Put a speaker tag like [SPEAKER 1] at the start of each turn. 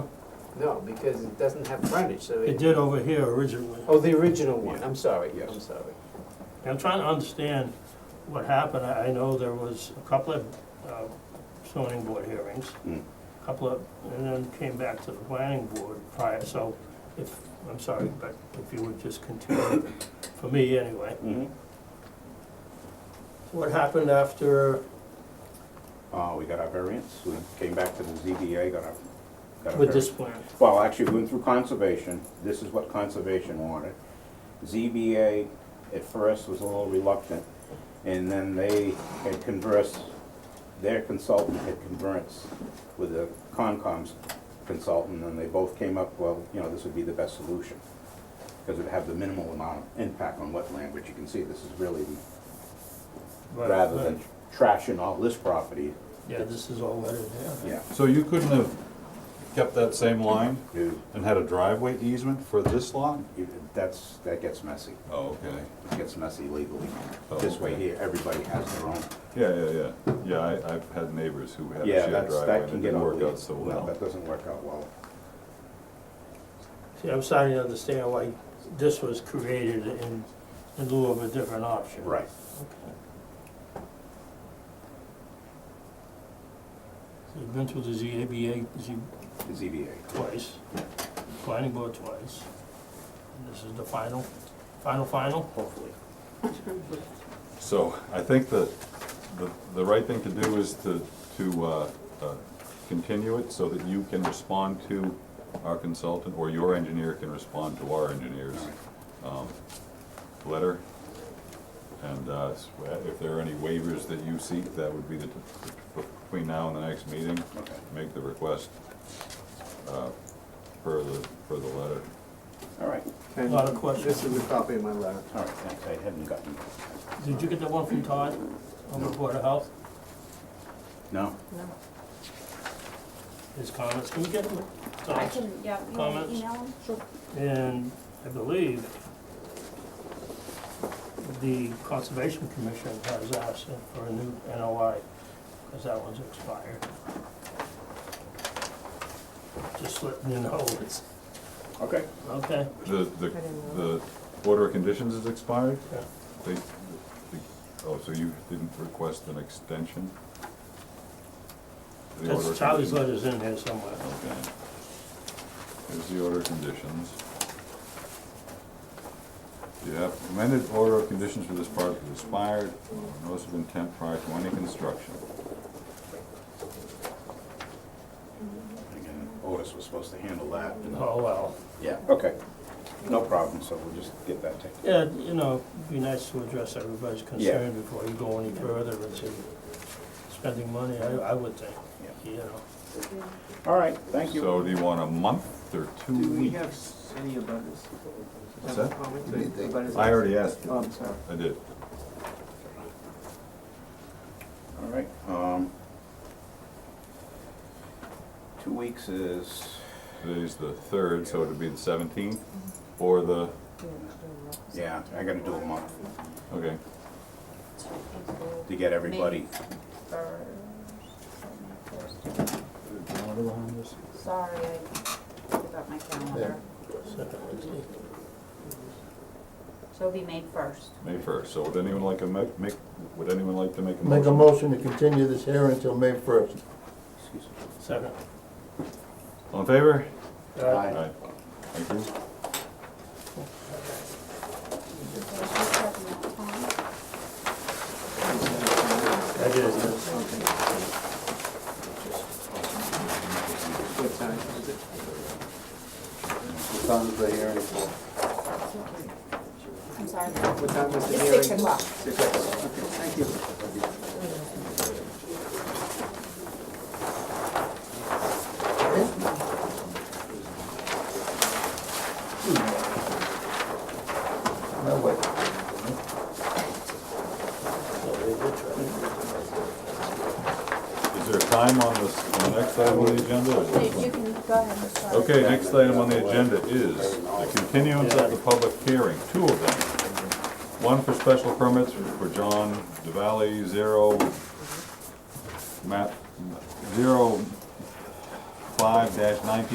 [SPEAKER 1] No, because it doesn't have frontage, so
[SPEAKER 2] It
[SPEAKER 1] it,
[SPEAKER 2] did over here originally.
[SPEAKER 1] oh, the original one, I'm sorry,
[SPEAKER 3] Yes.
[SPEAKER 1] I'm sorry.
[SPEAKER 2] I'm trying to understand what happened. I I know there was a couple of uh, zoning board hearings,
[SPEAKER 3] Mm.
[SPEAKER 2] a couple of, and then came back to the planning board prior, so if, I'm sorry, but if you would just continue, for me anyway.
[SPEAKER 3] Mm-hmm.
[SPEAKER 2] What happened after,
[SPEAKER 3] Uh, we got our variance, we came back to the ZBA, got our, got our
[SPEAKER 2] with this
[SPEAKER 3] variance.
[SPEAKER 2] plan?
[SPEAKER 3] Well, actually, we went through conservation, this is what conservation wanted. ZBA at first was a little reluctant, and then they had conversed, their consultant had conversed with the Concom's consultant, and they both came up, well, you know, this would be the best solution, because it'd have the minimal amount of impact on wetland, which you can see, this is really,
[SPEAKER 2] Right,
[SPEAKER 3] rather
[SPEAKER 2] right.
[SPEAKER 3] than trashing all this property,
[SPEAKER 2] Yeah, this is all what it is.
[SPEAKER 3] yeah.
[SPEAKER 4] So you couldn't have kept that same line
[SPEAKER 3] Dude,
[SPEAKER 4] and had a driveway easement for this lot?
[SPEAKER 3] it- that's, that gets messy.
[SPEAKER 4] Oh, okay.
[SPEAKER 3] It gets messy legally.
[SPEAKER 4] Oh,
[SPEAKER 3] This way
[SPEAKER 4] okay.
[SPEAKER 3] here, everybody has their own.
[SPEAKER 4] Yeah, yeah, yeah. Yeah, I, I've had neighbors who had a
[SPEAKER 3] Yeah,
[SPEAKER 4] shared
[SPEAKER 3] that's,
[SPEAKER 4] driveway
[SPEAKER 3] that
[SPEAKER 4] and it
[SPEAKER 3] can get
[SPEAKER 4] didn't
[SPEAKER 3] ugly.
[SPEAKER 4] work out so
[SPEAKER 3] No,
[SPEAKER 4] well.
[SPEAKER 3] That doesn't work out well.
[SPEAKER 2] See, I'm starting to understand why this was created in, in lieu of a different option.
[SPEAKER 3] Right.
[SPEAKER 2] So You've been through the ZABA, Z,
[SPEAKER 3] The ZBA.
[SPEAKER 2] twice, planning board twice. And This is the final, final, final? Hopefully.
[SPEAKER 4] So I think that the, the right thing to do is to, to, uh, uh, continue it so that you can respond to our consultant, or your engineer can respond to our engineer's, um, letter. And, uh, s- if there are any waivers that you seek, that would be the, t- between now and the next meeting,
[SPEAKER 3] Okay.
[SPEAKER 4] make the request, uh, per the, per the letter.
[SPEAKER 3] All right,
[SPEAKER 2] A lot of questions.
[SPEAKER 1] This is a copy of my letter.
[SPEAKER 3] all right, thanks. I hadn't gotten,
[SPEAKER 2] Did you get the one from Todd on the Board of Health,
[SPEAKER 3] no,
[SPEAKER 2] his comments? Can we get him?
[SPEAKER 5] I can, yeah, you want
[SPEAKER 2] Comments?
[SPEAKER 5] to email them?
[SPEAKER 2] And I believe the Conservation Commission has asked for a new NOI, because that one's expired. Just letting you know, it's,
[SPEAKER 3] okay.
[SPEAKER 2] okay,
[SPEAKER 4] The, the, the order of conditions is expired?
[SPEAKER 2] Yeah.
[SPEAKER 4] They, the- oh, so you didn't request an extension? The order
[SPEAKER 2] that's
[SPEAKER 4] of
[SPEAKER 2] Charlie's
[SPEAKER 4] conditions-
[SPEAKER 2] letter's in there somewhere.
[SPEAKER 4] Okay. Here's the order of conditions. The amended order of conditions for this project is expired, notice of intent prior to any construction.
[SPEAKER 3] Again, Otis was supposed to handle that. and-
[SPEAKER 2] Oh, well,
[SPEAKER 3] Yeah, okay. No problem, so we'll just get that taken.
[SPEAKER 2] yeah, you know, it'd be nice to address everybody's concern before you go any further into spending money, I, I would think, you know.
[SPEAKER 3] All right, thank you.
[SPEAKER 4] So do you want a month or two
[SPEAKER 1] Do we
[SPEAKER 4] weeks?
[SPEAKER 1] have any abutters?
[SPEAKER 4] What's
[SPEAKER 1] Have
[SPEAKER 4] that?
[SPEAKER 1] comments?
[SPEAKER 4] I already asked
[SPEAKER 1] Oh,
[SPEAKER 4] you.
[SPEAKER 1] I'm sorry.
[SPEAKER 4] I did.
[SPEAKER 3] All right, um, two weeks is,
[SPEAKER 4] Today's the third, so it'd be the seventeenth or the,
[SPEAKER 3] yeah, I gotta do a month
[SPEAKER 4] okay.
[SPEAKER 3] to get everybody.
[SPEAKER 5] Sorry, I took out my calendar.
[SPEAKER 2] Second Wednesday.
[SPEAKER 5] So it'll be May first.
[SPEAKER 4] May first, so would anyone like to make, make, would anyone like to make a
[SPEAKER 6] Make a
[SPEAKER 4] motion?
[SPEAKER 6] motion to continue this hearing until May first.
[SPEAKER 3] Excuse me.
[SPEAKER 2] Second.
[SPEAKER 4] All in favor?
[SPEAKER 2] Uh,
[SPEAKER 3] Aye.
[SPEAKER 4] Thank you.
[SPEAKER 2] I did it.
[SPEAKER 1] What time is it?
[SPEAKER 5] I'm sorry.
[SPEAKER 1] What time is the
[SPEAKER 5] It's
[SPEAKER 1] hearing?
[SPEAKER 5] six o'clock.
[SPEAKER 1] Six o'clock, okay, thank you.
[SPEAKER 6] No way.
[SPEAKER 4] Is there a time on this, on the next item on the agenda? or
[SPEAKER 5] You
[SPEAKER 4] is
[SPEAKER 5] you
[SPEAKER 4] this
[SPEAKER 5] can go ahead and start.
[SPEAKER 4] one? Okay, next item on the agenda is the continuance of the public hearing, two of them. One for special permits for John DeValley, zero, map, zero, five dash nineteen